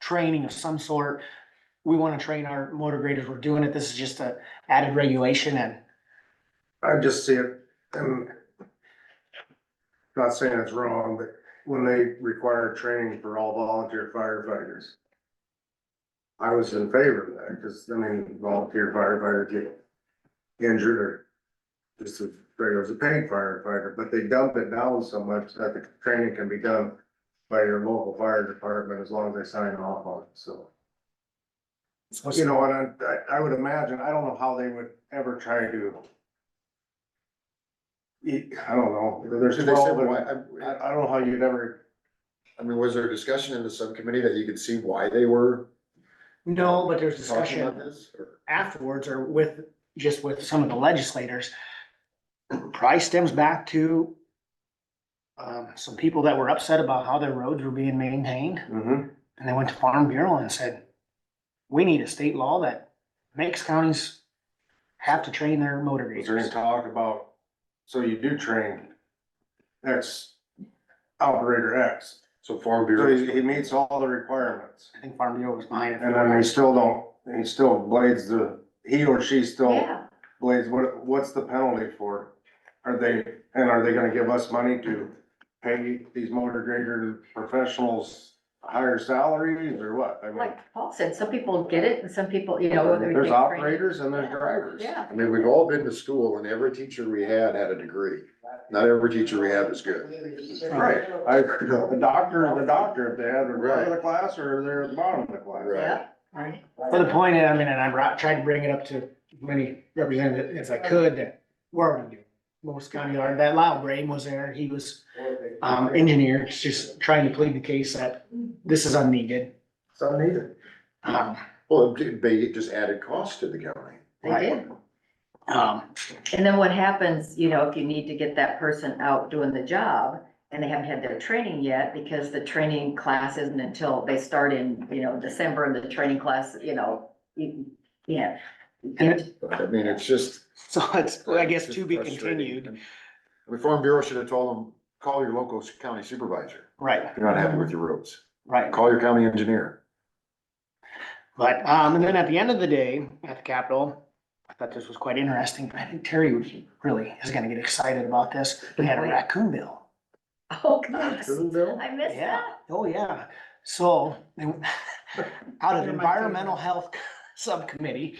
training of some sort. We wanna train our motor graders, we're doing it, this is just a added regulation and I just see it, and not saying it's wrong, but when they require training for all volunteer firefighters. I was in favor of that, cause I mean, volunteer firefighters get injured or just as regular as a paid firefighter, but they dump it down so much that the training can be done by your local fire department as long as they sign off on it, so. You know, and I, I would imagine, I don't know how they would ever try to Y- I don't know, there's Did they say twelve, why- I, I I don't know how you'd ever, I mean, was there a discussion in the subcommittee that you could see why they were no, but there's talking about discussion this? or- afterwards or with, just with some of the legislators. Probably stems back to um, some people that were upset about how their roads were being maintained. And they went to Farm Bureau and said, we need a state law that makes counties have to train their motor is there any graders. talk about, so you do train X operator X, So Farm so Bureau, he, he meets all the requirements. I think Farm Bureau was behind it. And then they still don't, he still blades the, he or she still Yeah, blades, what, what's the penalty for? Are they, and are they gonna give us money to pay these motor grader professionals higher salaries or what? I mean, like Paul said, some people get it and some people, you know. whether there's they- operators and there's Yeah. drivers. Yeah, I mean, we've all been to school and every teacher we had had a degree. Not every teacher we have is good. Right, I, the doctor, the doctor, if they have the front of the class or they're at the bottom of the class. Right. yeah, right. For the point, I mean, and I brought, tried to bring it up to as many representatives as I could that were already doing. it. Most county are, that Lyle Brame was there, he was, um, engineer, just trying to plead the case that this is unneeded. It's unneeded. Um, Well, it did- they just added cost to the county. They did. um, And then what happens, you know, if you need to get that person out doing the job and they haven't had their training yet because the training class isn't until they start in, you know, December and the training class, you know, you, yeah. I mean, it's just. so it's, I guess it's to be frustrating. continued, I mean, Farm Bureau should have told them, call your local county supervisor. right, If You're not happy with your roads. right. Call your county engineer. But, um, and then at the end of the day, at the Capitol, I thought this was quite interesting, but I think Terry would- really is gonna get excited about this. We had a raccoon bill. Oh, gosh, Bill? I missed Yeah, that. oh, yeah. So, they- out of They're my environmental health subcommittee,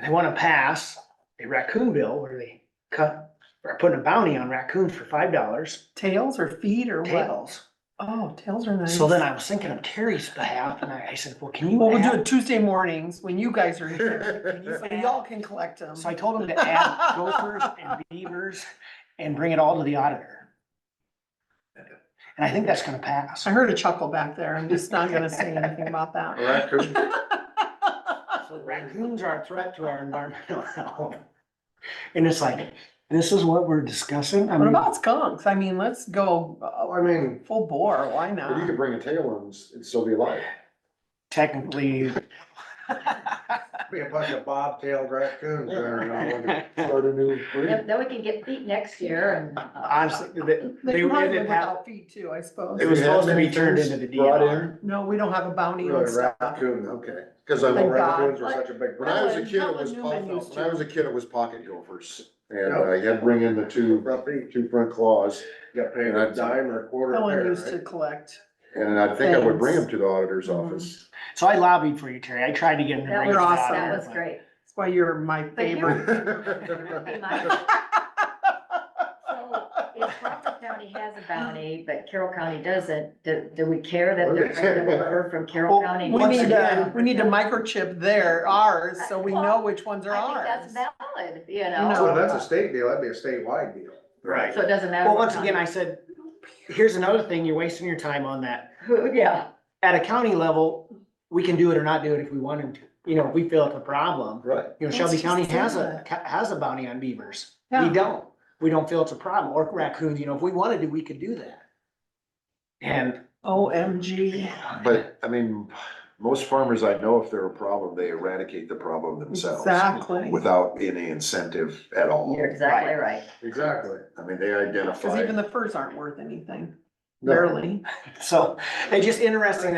they wanna pass a raccoon bill where they cut, or put a bounty on raccoons for five dollars, Tails or feet or what? tails. Oh, tails are nice. So then I was thinking of Terry's behalf, and I I said, well, can you Well, we'll do add- it Tuesday mornings when you guys are here. and you- and Y'all can collect them. So I told him to add gophers and beavers and bring it all to the auditor. And I think that's gonna pass. I heard a chuckle back there. I'm just not gonna say anything about that. Raccoon. So Raccoons are a threat to our environmental health. And it's like, this is what we're discussing? I What mean, about skunks? I mean, let's go Well, uh, I mean, full bore. Why But you not? could bring a tail and s- it'd still be alive. technically. be a bunch of bobtailed raccoons there and all. Start a new breed. Then then we can get feet next year and. uh, Honestly, they, They they can probably didn't live have- without feet too, I suppose. it was If you had supposed to be many turned things into the brought DNR. in, No, we don't have a bounty on Really, stuff. raccoon, okay. Okay, cause I, Thank when God. Raccoons are such a big I problem. was a kid, it was, Helen pop- Newman used when I to- was a kid, it was pocket gophers. And uh, you had to bring in the two, two front claws, Got paid a dime or a quarter Helen pair, used to right? collect. and I think I would bring them Thanks. to the auditor's Mhm. office. So I lobbied for you, Terry. I tried to get him to That bring was, it You're out. awesome. that was great. That's why you're my But here- favorite. Be my- So if Crawford County has a bounty, but Carroll County doesn't, do, do we care that they're bringing it over from Carroll Well, County? We Once need to, again- we need to microchip their ours, so we know which ones are I ours. think that's valid, you No. Well, know, Oh, that's a state deal, that'd be a statewide deal. Right. so it doesn't matter. Well, what once again, I county. said, here's another thing, you're wasting your time on that. Who- Yeah, At a county level, we can do it or not do it if we wanted to. You know, if we feel it's a problem, Right. you know, Let's Shelby just County do has a, that. ca- has a bounty on beavers. We Yeah. don't. We don't feel it's a problem or raccoons, you know, if we wanted to, we could do that. And. OMG. But, I mean, most farmers I know, if they're a problem, they eradicate the problem themselves. Exactly. Without any incentive at all. you're exactly right. Exactly. I mean, they Cause identify. even the furs aren't worth anything, No. barely. So it's just interesting that